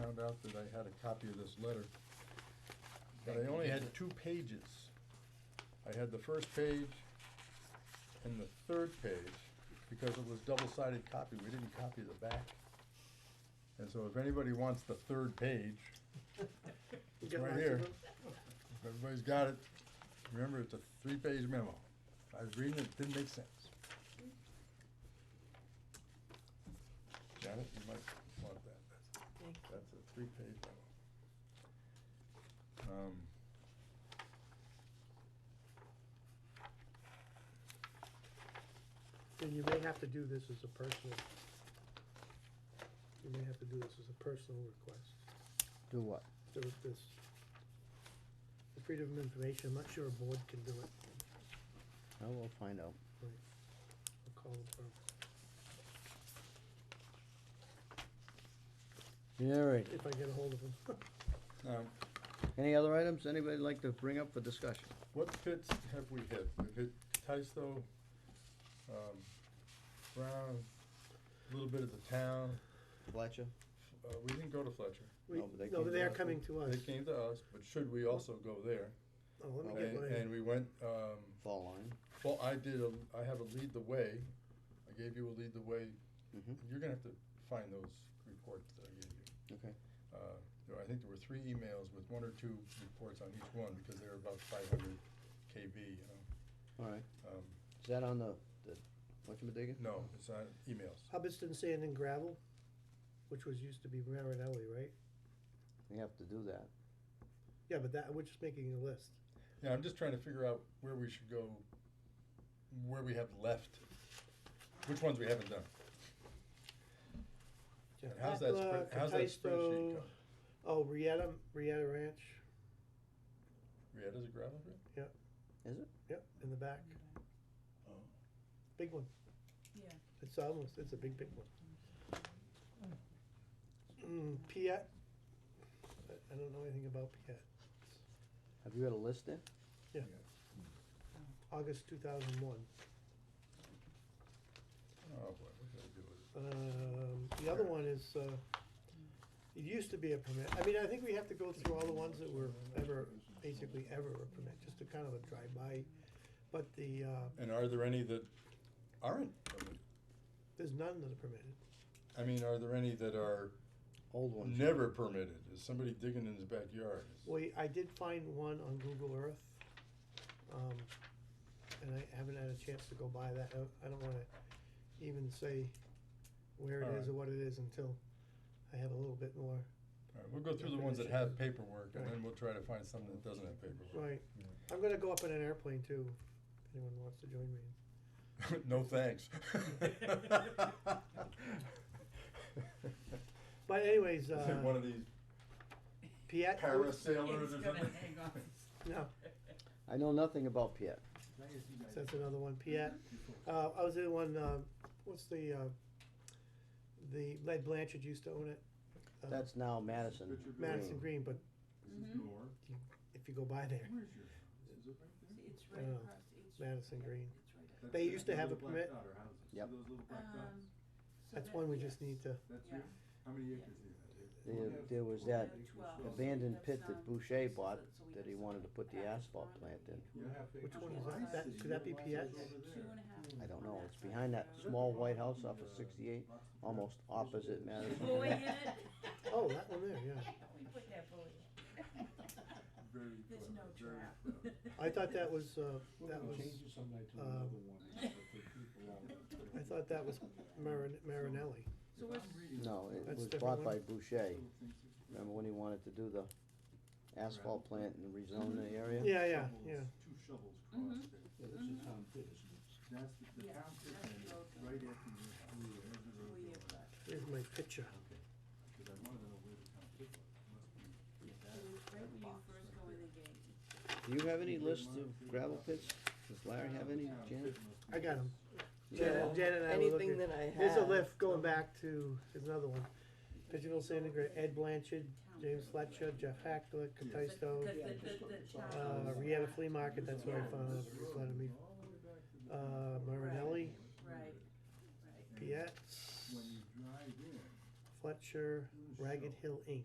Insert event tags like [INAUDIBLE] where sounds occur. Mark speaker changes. Speaker 1: out that I had a copy of this letter, but I only had two pages. I had the first page and the third page, because it was double-sided copy, we didn't copy the back. And so if anybody wants the third page, it's right here. If Everybody's got it, remember, it's a three-page memo. I was reading it, it didn't make sense. Janet, you might want that, that's,
Speaker 2: Thank
Speaker 1: that's a three-page memo. Um,
Speaker 3: And you may have to do this as a personal, you may have to do this as a personal request,
Speaker 4: Do what?
Speaker 3: there was this. The freedom of information, I'm not sure a board can do it,
Speaker 4: Oh, we'll find out.
Speaker 3: I'll call them for,
Speaker 4: All right,
Speaker 3: if I get a hold of
Speaker 1: [LAUGHS]
Speaker 3: them.
Speaker 1: now,
Speaker 4: any other items anybody like to bring up for discussion?
Speaker 1: what pits have we hit? We've hit Tisto, um, Brown, a little bit of the town,
Speaker 4: Fletcher?
Speaker 1: uh, we didn't go to Fletcher.
Speaker 3: We,
Speaker 4: No, but they
Speaker 3: no,
Speaker 4: came
Speaker 3: but
Speaker 4: to
Speaker 3: they are
Speaker 4: us.
Speaker 3: coming to us,
Speaker 1: They came to us, but should we also go there?
Speaker 3: oh, let me get
Speaker 1: And,
Speaker 3: one,
Speaker 1: and we went, um,
Speaker 4: Fall line.
Speaker 1: Well, I did a, I have a lead the way, I gave you a lead the way,
Speaker 4: Mm-hmm.
Speaker 1: you're gonna have to find those reports that I gave you.
Speaker 4: Okay.
Speaker 1: Uh, there- I think there were three emails with one or two reports on each one, because they were about five hundred KB, you know,
Speaker 4: All right.
Speaker 1: um,
Speaker 4: Is that on the, the, whatchamadiggin?
Speaker 1: no, it's not emails.
Speaker 3: Hubbardston Sand and Gravel, which was, used to be Marinelli, right?
Speaker 4: We have to do that.
Speaker 3: Yeah, but that, we're just making a list,
Speaker 1: Yeah, I'm just trying to figure out where we should go, where we have left, which ones we haven't done. And how's that spread,
Speaker 3: Jack
Speaker 1: how's that
Speaker 3: Patla,
Speaker 1: spreadsheet
Speaker 3: Cataisto,
Speaker 1: going?
Speaker 3: Oh, Rieta, Rieta Ranch,
Speaker 1: Rietta's a gravel pit?
Speaker 4: Is it?
Speaker 3: yep, in the back,
Speaker 1: Oh.
Speaker 3: big one.
Speaker 2: Yeah.
Speaker 3: It's almost, it's a big, big one. Mm, Piat, I I don't know anything about Piat,
Speaker 4: Have you got a list there?
Speaker 3: August two thousand one.
Speaker 1: Oh, boy, what did I do with it?
Speaker 3: Um, the other one is, uh, it used to be a permit, I mean, I think we have to go through all the ones that were ever, basically ever a permit, just to kind of a drive-by. But the, uh,
Speaker 1: And are there any that aren't permitted?
Speaker 3: there's none that are permitted,
Speaker 1: I mean, are there any that are
Speaker 4: Old ones.
Speaker 1: never permitted? Is somebody digging in his backyard?
Speaker 3: we, I did find one on Google Earth. Um, and I haven't had a chance to go by that, I, I don't wanna even say where it is or what it is until I have a little bit more,
Speaker 1: All right, we'll go through the ones that have paperwork and then we'll try to find some that doesn't have paperwork.
Speaker 3: right, I'm gonna go up in an airplane too, if anyone wants to join me.
Speaker 1: [LAUGHS] No thanks.
Speaker 3: But anyways,
Speaker 1: Is it one
Speaker 3: uh,
Speaker 1: of these
Speaker 3: Piet,
Speaker 1: parasailers
Speaker 2: It's
Speaker 1: or
Speaker 2: gonna
Speaker 1: something?
Speaker 2: hang off.
Speaker 3: no,
Speaker 4: I know nothing about Piet.
Speaker 3: Uh-huh. so that's another one, Piet, uh, I was in one, uh, what's the, uh, the Lead Blanchard used to own it. uh,
Speaker 4: That's now Madison.
Speaker 3: Madison Green,
Speaker 4: Green.
Speaker 3: but
Speaker 2: Mhm.
Speaker 3: if you go by there,
Speaker 2: See, It's
Speaker 3: I
Speaker 2: right
Speaker 3: know.
Speaker 2: across, it's.
Speaker 3: Oh, Madison Green,
Speaker 2: it's right up.
Speaker 3: They used to have a permit.
Speaker 4: Yep.
Speaker 2: Um, so
Speaker 3: that's
Speaker 2: that-
Speaker 3: one we just
Speaker 2: yes.
Speaker 3: need to,
Speaker 2: Yeah.
Speaker 5: How many
Speaker 2: acres
Speaker 4: There, there was that
Speaker 2: Yeah, 12.
Speaker 4: abandoned
Speaker 2: That's
Speaker 4: pit that
Speaker 2: not-
Speaker 4: Boucher
Speaker 2: so
Speaker 4: bought
Speaker 2: that- so we
Speaker 4: that
Speaker 2: have
Speaker 4: he
Speaker 2: some
Speaker 4: wanted to put the
Speaker 2: package
Speaker 4: asphalt
Speaker 2: on
Speaker 4: plant
Speaker 2: it.
Speaker 4: in.
Speaker 3: which one
Speaker 2: Okay,
Speaker 3: is
Speaker 2: so
Speaker 3: that, that, could that be Piet?
Speaker 2: Two and a half.
Speaker 4: I don't
Speaker 2: on
Speaker 4: know,
Speaker 2: that
Speaker 4: it's
Speaker 2: side of
Speaker 4: behind
Speaker 2: the
Speaker 4: that
Speaker 2: road.
Speaker 4: small white house off of sixty-eight, almost opposite Madison.
Speaker 2: Boy
Speaker 4: Green.
Speaker 2: in it.
Speaker 4: [LAUGHS]
Speaker 3: Oh, that one there, yeah,
Speaker 2: [LAUGHS] We put that boy in. There's no trap.
Speaker 3: I thought that was, uh, that was, um, I thought that was Marin- Marinelli,
Speaker 2: [LAUGHS] So where's,
Speaker 4: No, it
Speaker 3: That's
Speaker 4: was
Speaker 3: different
Speaker 4: bought by
Speaker 3: one.
Speaker 4: Boucher. Remember when he wanted to do the asphalt plant and rezone the area?
Speaker 3: yeah, yeah, yeah,
Speaker 5: Two shovels
Speaker 2: Mhm.
Speaker 5: crossed there. That's the, the
Speaker 2: Yeah,
Speaker 5: town pit
Speaker 2: that's
Speaker 5: is
Speaker 2: the road.
Speaker 5: right after you, you have the road
Speaker 2: we have,
Speaker 5: there.
Speaker 2: uh,
Speaker 3: here's my picture,
Speaker 5: Okay, because I wanted to know where the town pit was, It must be that,
Speaker 2: it was right
Speaker 5: that
Speaker 2: when you
Speaker 5: box
Speaker 2: first
Speaker 5: right
Speaker 2: go in
Speaker 5: there.
Speaker 2: the gate.
Speaker 4: Do you have any lists of gravel pits? Does Larry have any,
Speaker 5: Town
Speaker 4: Janet?
Speaker 5: pit must be
Speaker 3: I got 'em.
Speaker 4: Yeah.
Speaker 3: Janet, Janet and I were
Speaker 6: Anything
Speaker 3: looking-
Speaker 6: that I have.
Speaker 3: There's a lift going back to, there's another one, Pigeon Sand and Gra- Ed Blanchard,
Speaker 2: Town.
Speaker 3: James Fletcher, Jeff Hackler,
Speaker 2: Because
Speaker 3: Cataisto,
Speaker 2: the- the- the town
Speaker 3: uh,
Speaker 2: is
Speaker 3: Rieta
Speaker 2: not-
Speaker 3: Flea Market, that's where I found out, it was me,
Speaker 5: all the way back to the-
Speaker 3: uh, Marinelli,
Speaker 2: Right, right.
Speaker 5: and
Speaker 3: Piet,
Speaker 5: When you drive in.
Speaker 3: Fletcher, Ragged Hill Inc.